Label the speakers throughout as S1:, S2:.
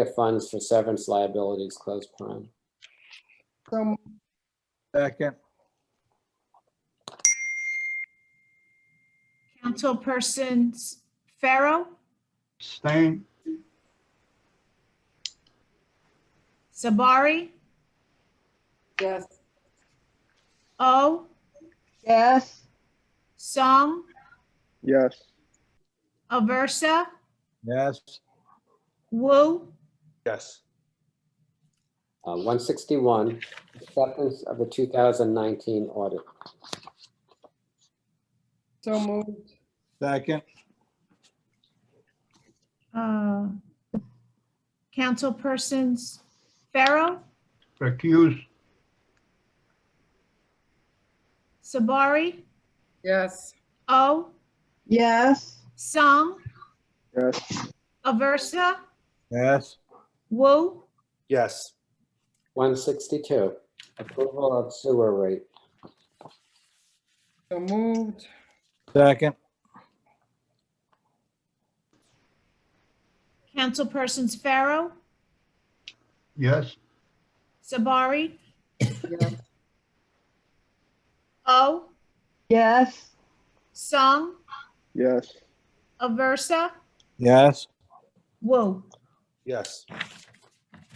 S1: appropriate funds for severance liabilities, close prime.
S2: So moved.
S3: Second,
S4: Councilperson Pharaoh,
S5: Abstain.
S4: Sabari,
S6: yes,
S4: O,
S2: yes,
S4: Song,
S7: yes,
S4: Aversa,
S3: yes,
S4: Wu,
S8: yes,
S1: Uh, 161, acceptance of the 2019 audit.
S6: so moved,
S3: second,
S4: uh, Councilpersons Pharaoh,
S5: Recuse.
S4: Sabari,
S6: yes,
S4: O,
S2: yes,
S4: Song,
S7: yes,
S4: Aversa,
S3: yes,
S4: Wu,
S8: yes,
S1: 162, approval of sewer rate.
S6: so moved,
S3: second,
S4: Councilpersons Pharaoh,
S5: Yes.
S4: Sabari,
S6: yes,
S4: O,
S2: yes,
S4: Song,
S7: yes,
S4: Aversa,
S3: yes.
S4: Wu.
S8: yes,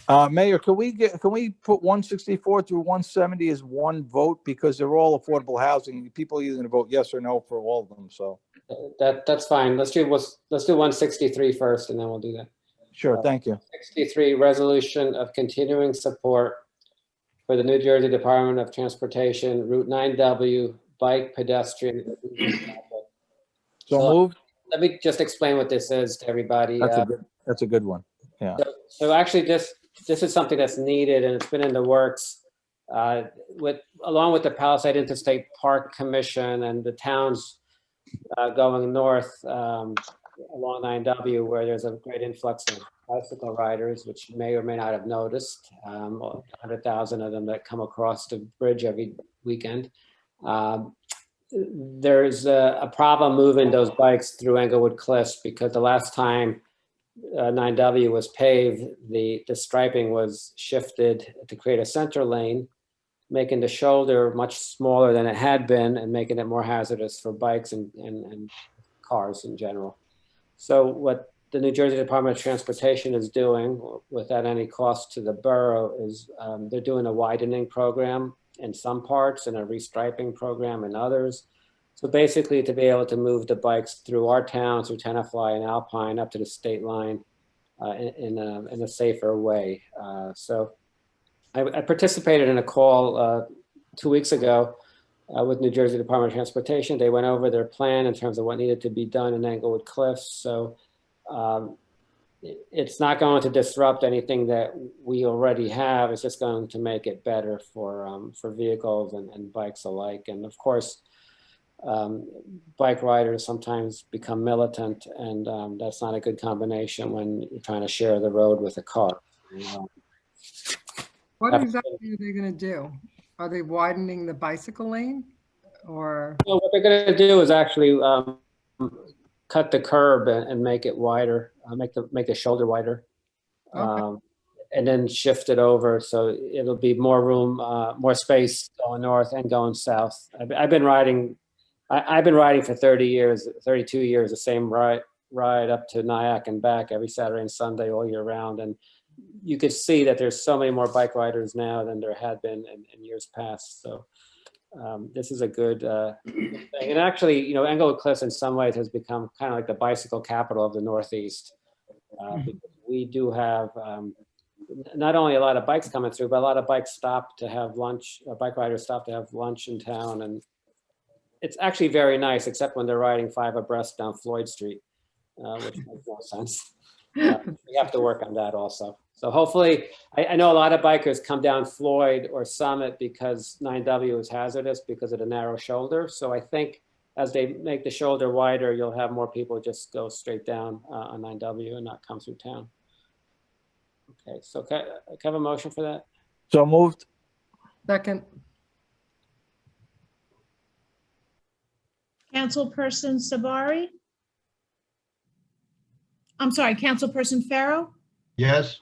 S3: Uh, Mayor, can we get, can we put one sixty-four through one seventy as one vote? Because they're all affordable housing. People are either gonna vote yes or no for all of them, so.
S1: Uh, That, that's fine. Let's do, what's- let's do 163 first, and then we'll do that.
S3: Sure, thank you.
S1: 63, resolution of continuing support for the New Jersey Department of Transportation Route 9W Bike Pedestrian. Improvement Project.
S3: So
S1: So-
S3: moved.
S1: Let me just explain what this is to everybody.
S3: That's
S1: Uh,
S3: a good, that's a good one.
S1: So actually, this, this is something that's needed and it's been in the works uh, with, along with the Palisade Interstate Park Commission and the towns uh, going north um, along 9W where there's a great influx of bicycle riders, which you may or may not have noticed. um, 100,000 of them that come across the bridge every weekend. Um, There's a a problem moving those bikes through Englewood Cliffs because the last time uh, 9W was paved, the, the striping was shifted to create a center lane, making the shoulder much smaller than it had been and making it more hazardous for bikes and, and, and cars in general. So what the New Jersey Department of Transportation is doing, without any cost to the borough, is um, they're doing a widening program in some parts and a restriping program in others. So basically, to be able to move the bikes through our town, through Tenafly and Alpine, up to the state line uh, in, in a, in a safer way. Uh, So I I participated in a call uh, two weeks ago uh, with New Jersey Department of Transportation. They went over their plan in terms of what needed to be done in Englewood Cliffs. So um, it- it's not going to disrupt anything that we already have. It's just going to make it better for, um, for vehicles and and bikes alike. And of course, um, bike riders sometimes become militant, and um, that's not a good combination when you're trying to share the road with a car. Um,
S6: what exactly are they gonna do? Are they widening the bicycle lane, or,
S1: So what they're going to do is actually um, cut the curb and, and make it wider, uh, make the make the shoulder wider,
S6: Okay.
S1: um, and then shift it over so it'll be more room, uh, more space going north and going south. I've, I've been riding, I, I've been riding for 30 years, 32 years, the same ride ride up to Nyack and back every Saturday and Sunday all year round, and you could see that there's so many more bike riders now than there had been in, in years past. So um, this is a good, uh, thing. and actually, you know, Englewood Cliffs in some ways has become kind of like the bicycle capital of the Northeast. Uh, because we do have um, n- not only a lot of bikes coming through, but a lot of bikes stop to have lunch, uh, bike riders stop to have lunch in town, and it's actually very nice, except when they're riding five abreast down Floyd Street, uh, which makes no sense. Uh, we have to work on that also. So hopefully, I, I know a lot of bikers come down Floyd or Summit because 9W is hazardous because of the narrow shoulder. So I think as they make the shoulder wider, you'll have more people just go straight down uh, on 9W and not come through town. Okay, so can I can I have a motion for that?
S3: So moved.
S6: second,
S4: Councilperson Sabari? I'm sorry, Councilperson Pharaoh,
S5: Yes.